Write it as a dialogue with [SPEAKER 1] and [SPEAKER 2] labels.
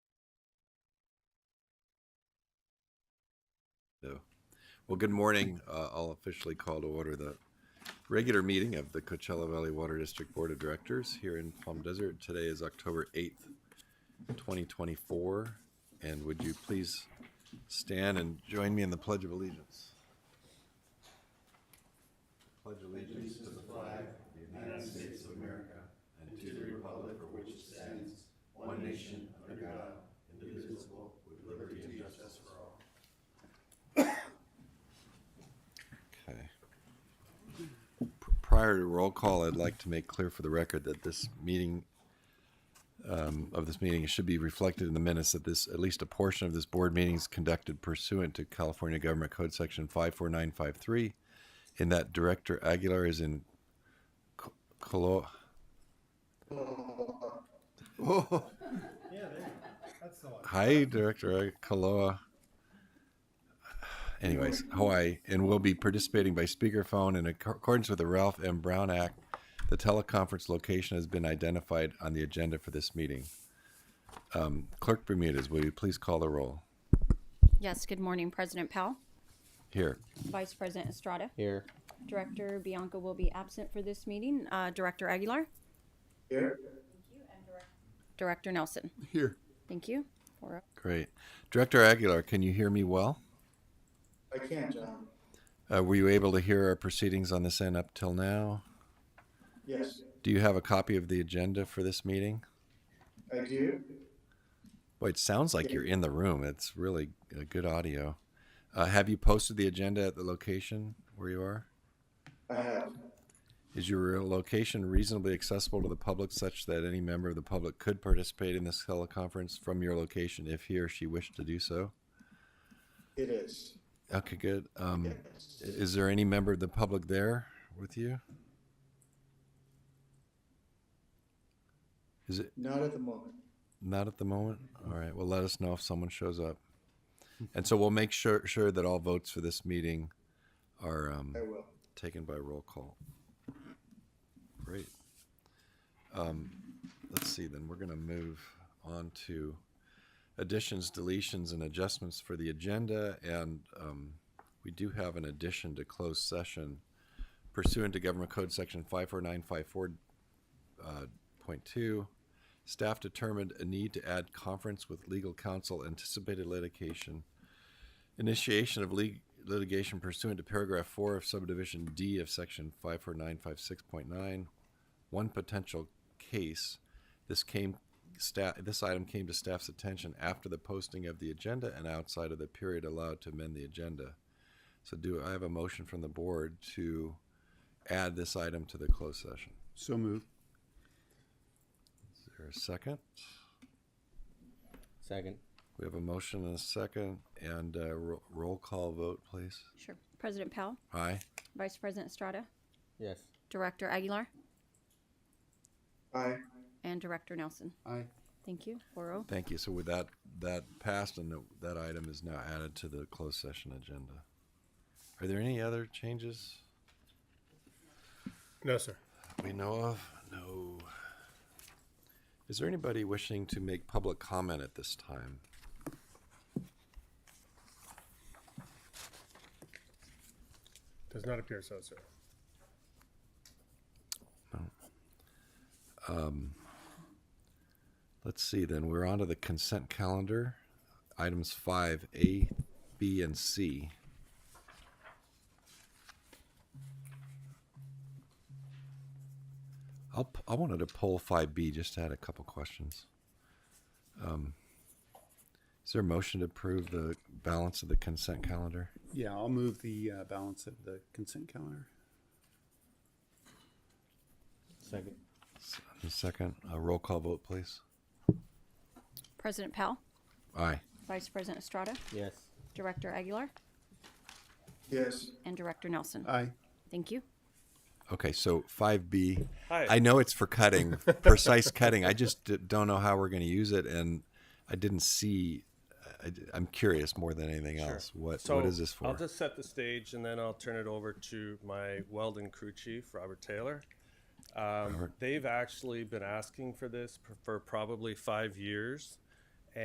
[SPEAKER 1] No. Well, good morning. Uh, I'll officially call to order the regular meeting of the Coachella Valley Water District Board of Directors here in Plum Desert. Today is October 8th, 2024. And would you please stand and join me in the Pledge of Allegiance? Okay. P- Prior to roll call, I'd like to make clear for the record that this meeting, um, of this meeting, should be reflected in the minutes that this, at least a portion of this board meeting is conducted pursuant to California Government Code Section 54953, in that Director Aguilar is in co- colo- Oh. Hi, Director Kaloa. Anyways, Hawaii, and will be participating by speakerphone in acc- accordance with the Ralph M. Brown Act. The teleconference location has been identified on the agenda for this meeting. Um, Clerk Bermudez, will you please call the roll?
[SPEAKER 2] Yes, good morning, President Powell,
[SPEAKER 1] Here.
[SPEAKER 2] Vice President Estrada,
[SPEAKER 3] Here.
[SPEAKER 2] Director Bianca will be absent for this meeting, uh, Director Aguilar,
[SPEAKER 3] Here.
[SPEAKER 2] Director Nelson.
[SPEAKER 1] Here.
[SPEAKER 2] Thank you. Four-
[SPEAKER 1] Great. Director Aguilar, can you hear me well?
[SPEAKER 3] I can, John.
[SPEAKER 1] Uh, were you able to hear our proceedings on this end up till now?
[SPEAKER 3] Yes,
[SPEAKER 1] Do you have a copy of the agenda for this meeting?
[SPEAKER 3] I do.
[SPEAKER 1] Boy, it sounds like you're in the room. It's really uh, good audio. Uh, have you posted the agenda at the location where you are?
[SPEAKER 3] I have.
[SPEAKER 1] Is your location reasonably accessible to the public such that any member of the public could participate in this teleconference from your location if he or she wished to do so?
[SPEAKER 3] It is.
[SPEAKER 1] Okay, good. Um, i-
[SPEAKER 3] Yes.
[SPEAKER 1] is there any member of the public there with you? Is it
[SPEAKER 3] Not at the moment.
[SPEAKER 1] Not at the moment. All right. Well, let us know if someone shows up, and so we'll make sure sure that all votes for this meeting are um,
[SPEAKER 3] I will.
[SPEAKER 1] taken by roll call. Great. Um, let's see. Then we're going to move on to additions, deletions, and adjustments for the agenda, and um, we do have an addition to closed session pursuant to Government Code Section five four nine five four uh, Point two, staff determined a need to add conference with legal counsel, anticipated litigation, initiation of leg- litigation pursuant to paragraph four of subdivision D of section five four nine five six point nine, one potential case. This came, sta this item came to staff's attention after the posting of the agenda and outside of the period allowed to amend the agenda. So do I have a motion from the board to add this item to the closed session?
[SPEAKER 4] So move.
[SPEAKER 1] Is there a second?
[SPEAKER 5] Second.
[SPEAKER 1] We have a motion and a second, and uh, ro- roll call vote, please.
[SPEAKER 2] Sure. President Powell,
[SPEAKER 1] Aye.
[SPEAKER 2] Vice President Estrada,
[SPEAKER 5] Yes.
[SPEAKER 2] Director Aguilar,
[SPEAKER 3] Aye.
[SPEAKER 2] and Director Nelson.
[SPEAKER 4] Aye.
[SPEAKER 2] Thank you. Four oh.
[SPEAKER 1] Thank you. So with that, that passed, and that- that item is now added to the closed session agenda. Are there any other changes
[SPEAKER 4] No, sir.
[SPEAKER 1] we know of? No. Is there anybody wishing to make public comment at this time?
[SPEAKER 4] Does not appear so, sir.
[SPEAKER 1] Let's see then. We're on to the consent calendar. Items five, A, B, and C. I'll, p- I wanted to poll five B, just had a couple questions. Um, Is there a motion to approve the balance of the consent calendar?
[SPEAKER 4] Yeah, I'll move the uh, balance of the consent calendar.
[SPEAKER 5] Second.
[SPEAKER 1] S- a Second, a roll call vote, please.
[SPEAKER 2] President Powell,
[SPEAKER 1] Aye.
[SPEAKER 2] Vice President Estrada,
[SPEAKER 5] Yes.
[SPEAKER 2] Director Aguilar,
[SPEAKER 3] Yes.
[SPEAKER 2] and Director Nelson.
[SPEAKER 4] Aye.
[SPEAKER 2] Thank you.
[SPEAKER 1] Okay, so five B. I know it's for cutting, precise cutting. I just d- don't know how we're going to use it, and I didn't see. I, am curious more than anything else. What
[SPEAKER 6] So
[SPEAKER 1] what is this for?
[SPEAKER 6] I'll just set the stage and then I'll turn it over to my Weldon crew chief, Robert Taylor. Um, They've actually been asking for this p- for probably five years.